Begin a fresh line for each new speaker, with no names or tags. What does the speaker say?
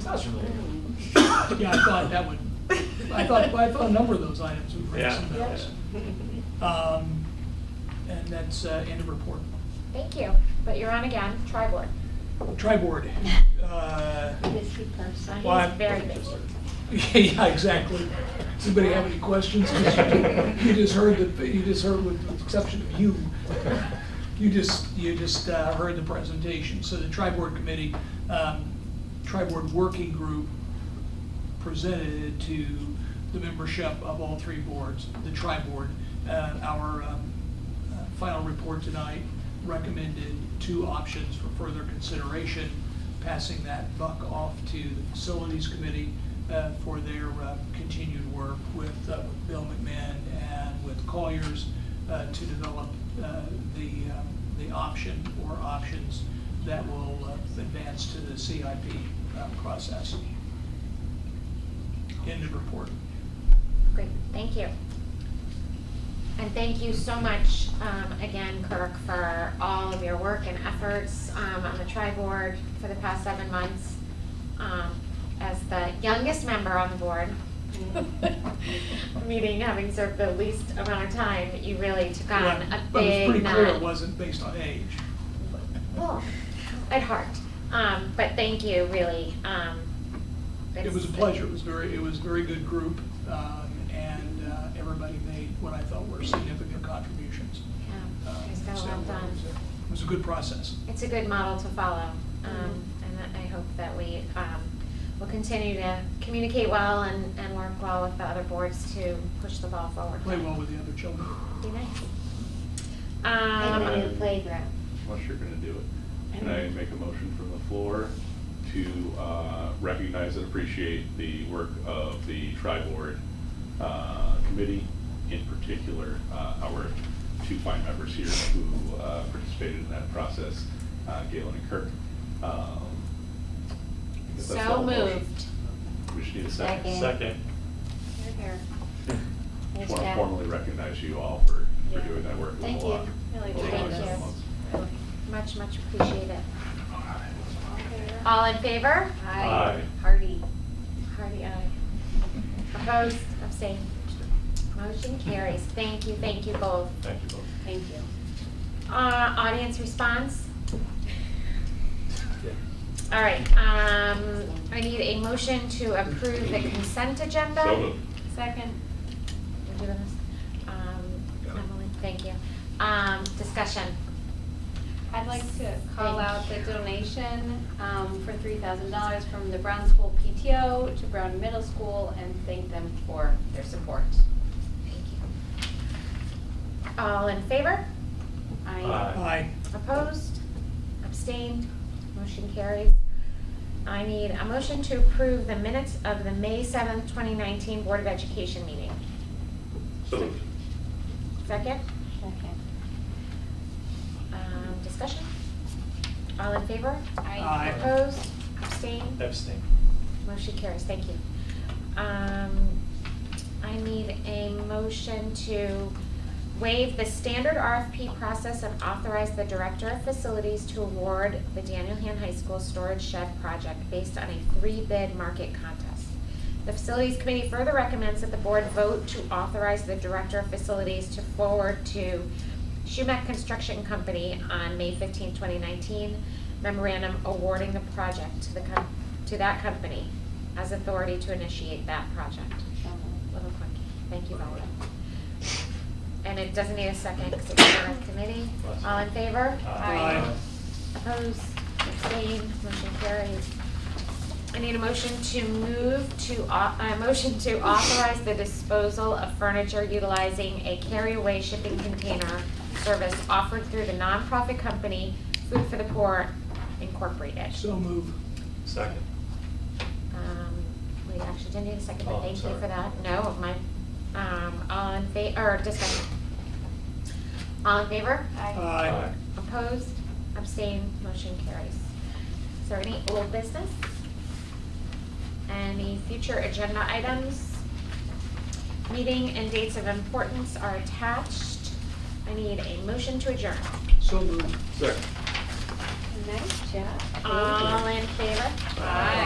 Sounds familiar.
Yeah, I thought that would, I thought, I thought a number of those items would raise
Yeah.
some
yeah.
bells. Um, And that's uh, end of report.
Thank you, but you're on again, try board.
Tri-board. Uh,
Busy person.
Well,
He's
I'm-
very busy.
Yeah, exactly. Does anybody have any questions? 'Cause You you just heard, the you just heard, with the exception of you, you just, you just uh, heard the presentation. So the tri-board committee, um, tri-board working group presented to the membership of all three boards, the tri-board, uh, our um, uh, final report tonight recommended two options for further consideration, passing that buck off to the facilities committee uh, for their uh, continued work with uh, with Bill McMahon and with Colliers uh, to develop uh, the, um, the option or options that will uh, advance to the CIP uh, process. End of report.
Great, thank you. And thank you so much, um, again, Kirk, for all of your work and efforts, um, on the tri-board for the past seven months. Um, as the youngest member on the board, meaning having served the least amount of time, you really took on
But-
a
But it's
big
pretty
nut.
clear it wasn't based on age.
Well, at heart, um, but thank you, really, um.
It was a
it's-
pleasure, it was very, it was a very good group, um, and uh, everybody made what I felt were significant contributions.
Yeah,
Um,
it's got a
so
lot done.
it was a- It was a good process.
It's a good model to follow, um,
Mm-hmm.
and I- I hope that we, um, will continue to communicate well and, and work well with the other boards to push the ball forward.
Play well with the other children.
Be nice.
And a
Um,
new playground.
Unless you're gonna do it. Can I make a motion from the floor to uh, recognize and appreciate the work of the tri-board uh, committee, in particular, uh, our two fine members here who uh, participated in that process, uh, Galen and Kirk. Um, I guess that's
So
all the motion.
moved.
We should need a second.
Second.
Second.
Here, here.
Just
Nice
want to
job.
formally recognize you all for, for
Yeah.
doing that work. It was a
Thank you.
lot.
Really
It was a lot
Thank
of
you.
months.
Much, much appreciated. All in favor?
Aye.
Hardy.
Hardy, aye. Opposed, abstained. Motion carries. Thank you, thank you both.
Thank you both.
Thank you.
Uh, audience response?
Yeah.
All right, um, I need a motion to approve the consent agenda.
So moved.
Second. We're doing this. Um, Emily, thank you. Um, discussion.
I'd like to call out the
Thank you.
donation um, for three thousand dollars from the Brown School PTO to Brown Middle School and thank them for their support.
Thank you. All in favor?
I
Aye.
Aye.
Opposed? Abstained? Motion carries. I need a motion to approve the minutes of the May seventh, twenty nineteen Board of Education meeting.
So moved.
Second,
Second.
um, discussion? All in favor?
Aye.
Opposed? Abstained?
Abstain.
Motion carries, thank you. Um, I need a motion to waive the standard RFP process and authorize the Director of Facilities to award the Daniel Han High School Storage Shed Project based on a three-bid market contest. The Facilities Committee further recommends that the Board vote to authorize the Director of Facilities to forward to Schumach Construction Company on May 15, 2019 memorandum awarding the project to the, com- to that company as authority to initiate that project.
So moved.
Little quickie, thank you, Bella. And it doesn't need a second because it's on the committee. All in favor?
Aye.
Opposed, abstained, motion carries. I need a motion to move to, au- a motion to authorize the disposal of furniture utilizing a carry-away shipping container service offered through the nonprofit company Food for the Poor Incorporated.
So move.
Second.
Um, We actually didn't need a second,
Oh,
but
I'm
thank you
sorry.
for that. No, my, um, all in fa, or discussion. All in favor?
Aye.
Opposed, abstained, motion carries. Is there any old business? Any future agenda items? Meeting and dates of importance are attached. I need a motion to adjourn.
So move.
Second.
Nice job. Thank you.
Um,
All in favor?
Aye.